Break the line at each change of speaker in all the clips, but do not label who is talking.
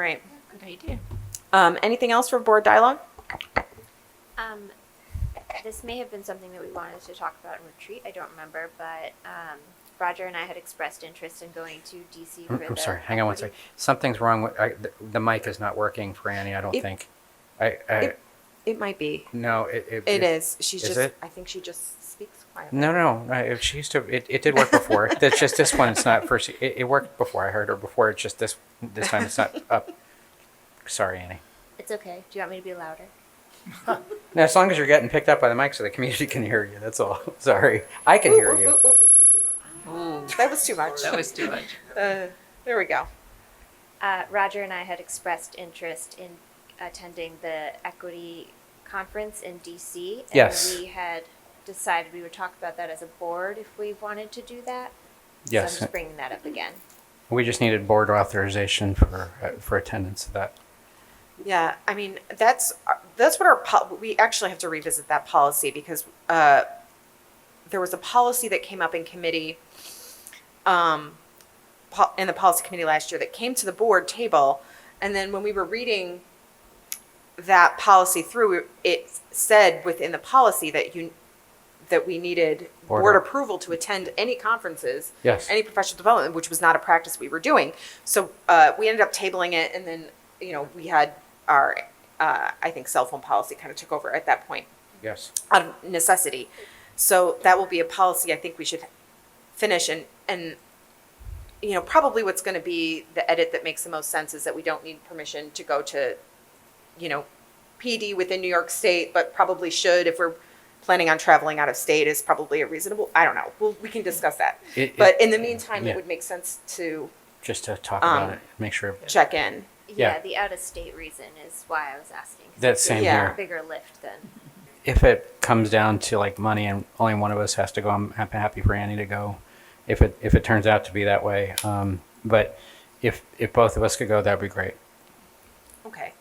Right.
Good idea.
Um, anything else for board dialogue?
Um, this may have been something that we wanted to talk about in retreat. I don't remember, but um, Roger and I had expressed interest in going to DC for
Oh, I'm, I'm
the
sorry, hang on one
equity-
second. Something's wrong with, I, the, the mic is not working for Annie, I don't
It-
think. I, I,
it- It might be.
no, it, it.
It is. She's
is
just.
it?
I think she just speaks quietly.
No, no, no, it, she used to, it, it did work before. That's just this one, it's not first, it, it worked before I heard her before, it's just this, this time it's not up. Sorry, Annie.
It's okay. Do you want me to be louder?
Now, as long as you're getting picked up by the mic so the community can hear you, that's all. Sorry, I can hear you.
That was too much.
That was too much.
Uh, there we go.
Uh, Roger and I had expressed interest in attending the equity conference in DC. And
Yes.
We had decided we would talk about that as a board if we wanted to do that. So
Yes.
I'm just bringing that up again.
We just needed board authorization for, uh, for attendance of that.
Yeah, I mean that's that's what our pol- we actually have to revisit that policy because uh, there was a policy that came up in committee, um, po- in the policy committee last year that came to the board table, and then when we were reading that policy through, it said within the policy that you that we needed
Board
board
op-
approval to attend any conferences
Yes.
any professional development, which was not a practice we were doing. So uh, we ended up tabling it, and then you know we had our uh, I think cell phone policy kind of took over at that point
Yes.
out of necessity. So that will be a policy I think we should finish and and you know probably what's going to be the edit that makes the most sense is that we don't need permission to go to you know PD within New York State, but probably should if we're planning on traveling out of state is probably a reasonable. I don't know. We'll, we can discuss that.
It-
but
it-
in the meantime,
yeah.
it would make sense to
Just to talk
Um,
about it, make sure.
check in.
Yeah.
the out of state reason is why I was asking. 'cause
That
it's
same
a
here.
Bigger lift than.
if it comes down to like money and only one of us has to go, I'm hap- happy for Annie to go. If it if it turns out to be that way, um, but if if both of us could go, that'd be great.
Okay.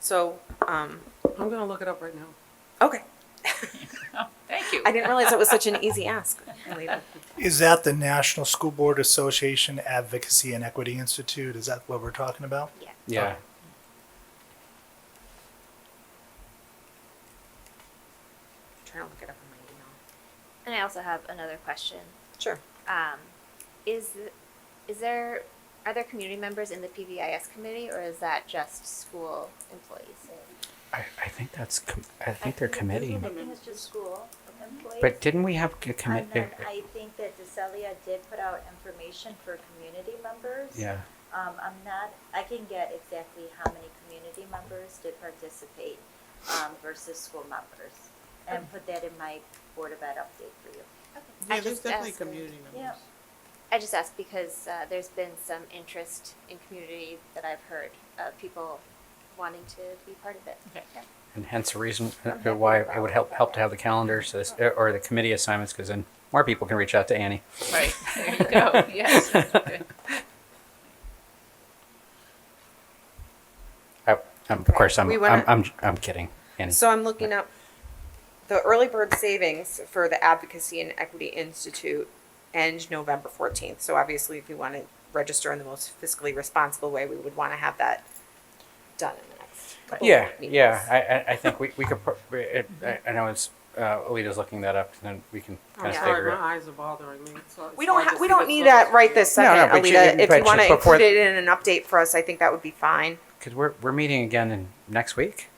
So um,
I'm gonna look it up right now.
okay,
Thank you.
I didn't realize that was such an easy ask. Leland.
Is that the National School Board Association Advocacy and Equity Institute? Is that what we're talking about?
Yeah.
Yeah.
trying to look it up in my email.
And I also have another question.
Sure.
Um, is th- is there are there community members in the PVIS committee, or is that just school employees?
I, I think that's com- I think they're committee.
I think it's just school employees.
But didn't we have uh, a committee?
And then I think that DeCelia did put out information for community members.
Yeah.
Um, I'm not, I can get exactly how many community members did participate, um, versus school members. And put that in my Board of Ed update for you.
I just asked-
Yeah.
I just asked because uh, there's been some interest in community that I've heard of people wanting to be part of it.
Okay.
And hence the reason uh, why it would help help to have the calendar so this, uh, or the committee assignments because then more people can reach out to Annie.
Right, there you go, yes. that's good.
I, I'm, of course, I'm,
We
I'm,
wanna-
I'm I'm kidding. Annie.
So I'm looking up the early bird savings for the Advocacy and Equity Institute end November 14th. So obviously, if we want to register in the most fiscally responsible way, we would want to have that done in the next couple
Yeah,
of meetings.
yeah, I- I, I think we, we could, pro- we- it- I I know it's, uh, Alita's looking that up, and then we can kind
I'm
of
sorry,
figure
my
it.
eyes are bothering me. so it's
We don't
hard
ha-
to
we
see
don't
this
need
little-
that right this
No, no,
second,
but you-
Alita. If
but
you want to
just before-
include it in an update for us, I think that would be fine.
Because we're, we're meeting again in, next week?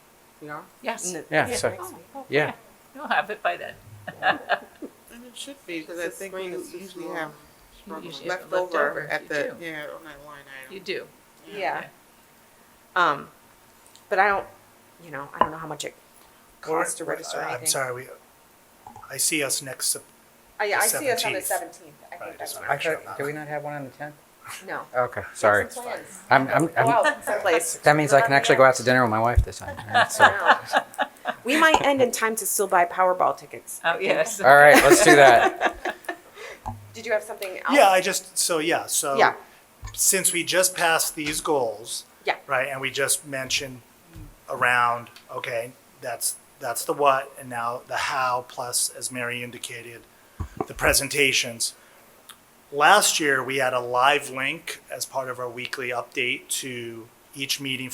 Yeah,
Yes,
Yeah, so, yeah,
you'll have it by then.
And it should be, because
The
I think
screen
we
is too
usually
small.
have
Struggling.
usually- Yeah,
leftover
leftovers, you
at the,
do.
yeah, on that line item.
You do.
Yeah. Um, but I don't, you know, I don't know how much it costs to register
I-
anything.
uh, I'm sorry, we, I see us next, Sep-
I, I
The
see us on the
17th.
seventeenth. I think
Right,
that's
just
when
wanna
I'm
make sure I'm
do
not-
we not have one on the tenth?
No.
Okay, sorry.
Some plans.
I'm, I'm,
Go
I'm,
out someplace.
that means I can actually go out to dinner with my wife this time. right? So-
We might end in time to still buy Powerball tickets.
Oh, yes.
All right, let's do that.
Did you have something else?
yeah, I just, so, yeah, so.
Oh. Yeah.
Since we just passed these goals.
Yeah.
Right, and we just mentioned around, okay, that's, that's the what, and now the how, plus, as Mary indicated, the presentations. Last year, we had a live link as part of our weekly update to each meeting